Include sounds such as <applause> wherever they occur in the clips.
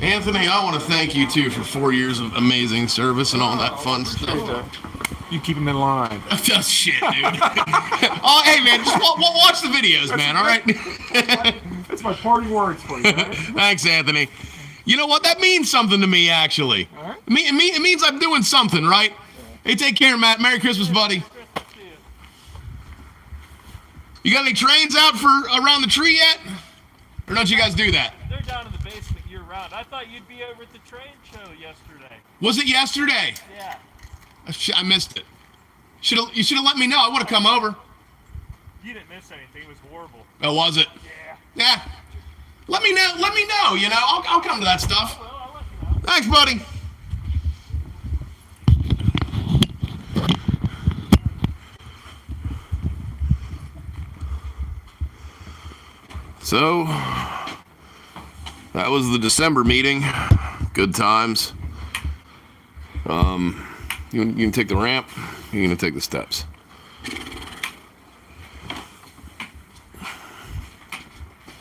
Anthony, I want to thank you too for four years of amazing service and all that fun stuff. <laughs> You keep him in line. Just shit, dude. <laughs> oh, hey, man, just wa- wa- watch the videos, man. All right. <laughs> That's my party words for you. Right? Thanks, Anthony. You know what? That means something to me, actually. All right. Me, me, it means I'm doing something, right? Hey, take care, Matt. Merry Christmas, buddy. You got any trains out for around the tree yet? Or don't you guys do that? They're down in the basement year round. I thought you'd be over at the train show yesterday. Was it yesterday? Yeah. Oh, shit, I missed it. Should you should have let me know? I would have come over. You didn't miss anything. It was horrible. Oh, was it? Yeah. Yeah. Let me know. Let me know. You know, I'll, I'll come to that stuff. Well, I'll let you know. Thanks, buddy. So, that was the December meeting. Good times. Um, you, you can take the ramp, you're going to take the steps. <sighs>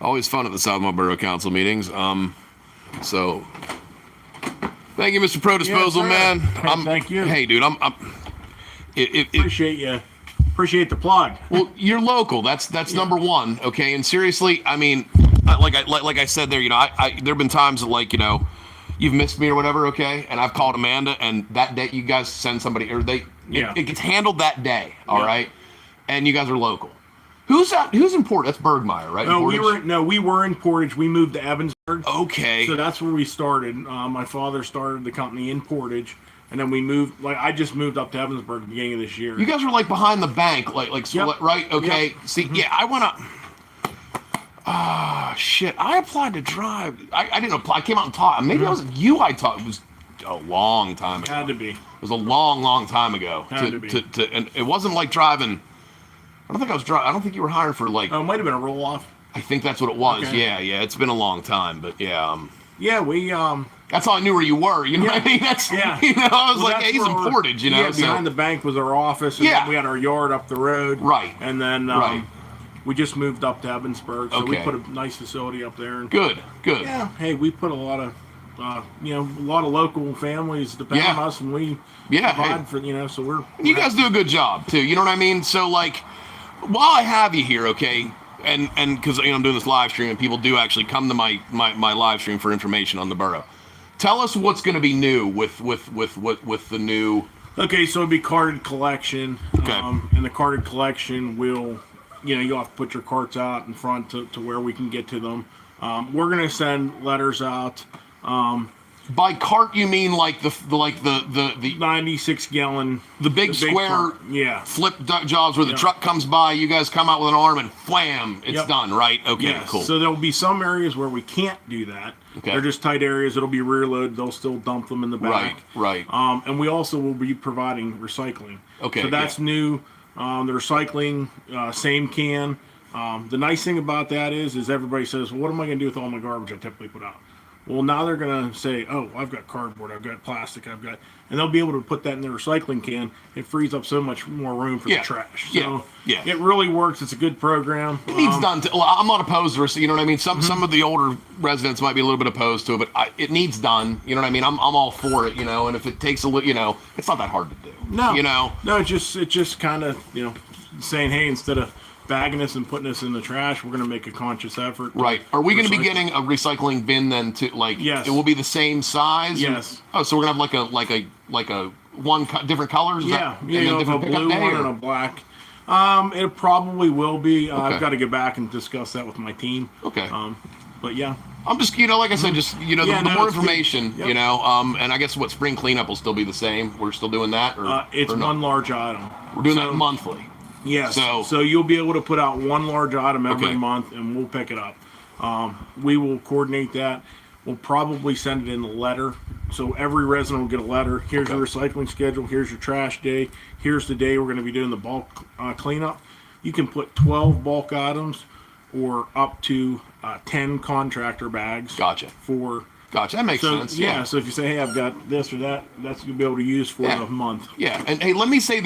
always fun at the Southmore Borough Council meetings. Um, so thank you, Mr. Pro Disposal, sir. man. Hey, thank you. Hey, dude, I'm. I'm it, it, it, Appreciate you. Appreciate the plug. well, you're local. That's that's number one. Okay, and seriously, I mean, I- like I like, like I said there, you know, I, I there've been times that like you know, you've missed me or whatever. Okay, and I've called Amanda, and that day you guys send somebody or they, Yeah. it, it gets handled that day. all right, Yeah. and you guys are local. Who's that? Who's in Port? That's Bergmeyer, right? No, Oh, we Portage? were no, we were in Portage. We moved to Evansburg. okay. So that's where we started. Uh, my father started the company in Portage, and then we moved. Like I just moved up to Evansburg at the beginning of this year. You guys were like behind the bank, like like so, Yep. Mm-hmm. right? Okay. Yep. See, yeah, I went up. Ah, shit! I applied to drive. I, I didn't apply. I came out and taught. Maybe I was you. I taught. It was a long time ago. Mm-hmm. had to be. It was a long, long time ago. Had to, to be. To, to, and it wasn't like driving. I don't think I was driving. I don't think you were hired for like. Oh, it might have been a roll off. I think that's what it was. okay. Yeah, yeah. It's been a long time, but yeah. Um, Yeah, we um. that's how I knew where you were. You know what I Yeah. mean? That's Yeah. <laughs> You know, I was well, like, that's hey, he's where in our- Portage. You know, yeah. so- Behind the bank was our office. And Yeah. then we had our yard up the road. Right. And then um, Right. we just moved up to Evansburg, so we Okay. put a nice facility up there. And good, good. yeah, hey, we put a lot of. Uh, you know, a lot of local families depend Yeah. on us, and we Yeah, hey. provide for you know. So we're you guys do a good job too. You know what I mean? So like, while I have you here, okay, and and because you know I'm doing this live stream and people do actually come to my my, my live stream for information on the borough. Tell us what's going to be new with with with with with the new. Okay, so it'd be carded collection. Okay. Um, and the carded collection will, you know, you'll have to put your carts out in front to, to where we can get to them. Um, we're going to send letters out, By cart, you mean like the the- like the the the 96 gallon. the big square cart. Yeah. flip duck jobs where the Yeah. truck comes by. You guys come out with an arm and wham, it's Yep. done. Right? Okay, Yeah, cool. So there'll be some areas where we can't do that. Okay. They're just tight areas. It'll be rear load. They'll still dump them in the back. right, right. Um, and we also will be providing recycling. Okay, So that's yeah. new. Um, the recycling, uh, same can. Um, the nice thing about that is, is everybody says, well, what am I going to do with all my garbage I typically put out? Well, now they're going to say, oh, I've got cardboard, I've got plastic, I've got, and they'll be able to put that in their recycling can. It frees up so much more room for Yeah, the trash. yeah, So yeah. it really works. It's a good program. needs Um, Mm-hmm. done. To, well, I'm not opposed to it. You know what I mean? Some some of the older residents might be a little bit opposed to it, but I, it needs done. You know what I mean? I'm, I'm all for it. You know, and if it takes a little, you know, it's not that hard to do. No, you know, no. It just it just kind of you know saying, hey, instead of bagging us and putting us in the trash, we're gonna make a conscious effort. to right? Are we going to be recycle. getting a recycling bin then? To like, Yes. it will be the same size. and- Yes. oh, so we're gonna have like a like a like a one co- different colors. Is Yeah, that- you and then know, if a different pickup blue day, one or- and a black. Um, it probably will be. Uh, Okay. I've got to go back and discuss that with my team. Okay. Um, but yeah, I'm just, you know, like I said, just you know, Yeah, the, the no, more it's good. information, Yep. you know, um, and I guess what spring cleanup will still be the same. We're still doing that, or uh, it's or not? one large item. We're doing So- that monthly. Yes. So- So, you'll be able to put out one large item every Okay. month, and we'll pick it up. Um, we will coordinate that. We'll probably send it in a letter, so every resident will get a letter. Here's your recycling schedule. Here's your trash day. Here's the day we're going to be doing the bulk uh, cleanup. You can put 12 bulk items, or up to uh, 10 contractor bags. Gotcha. For Gotcha, that makes so sense. yeah, so if you say, hey, I've got this or that, that's you'll be able to use for Yeah. the month. Yeah, and hey, let me say this.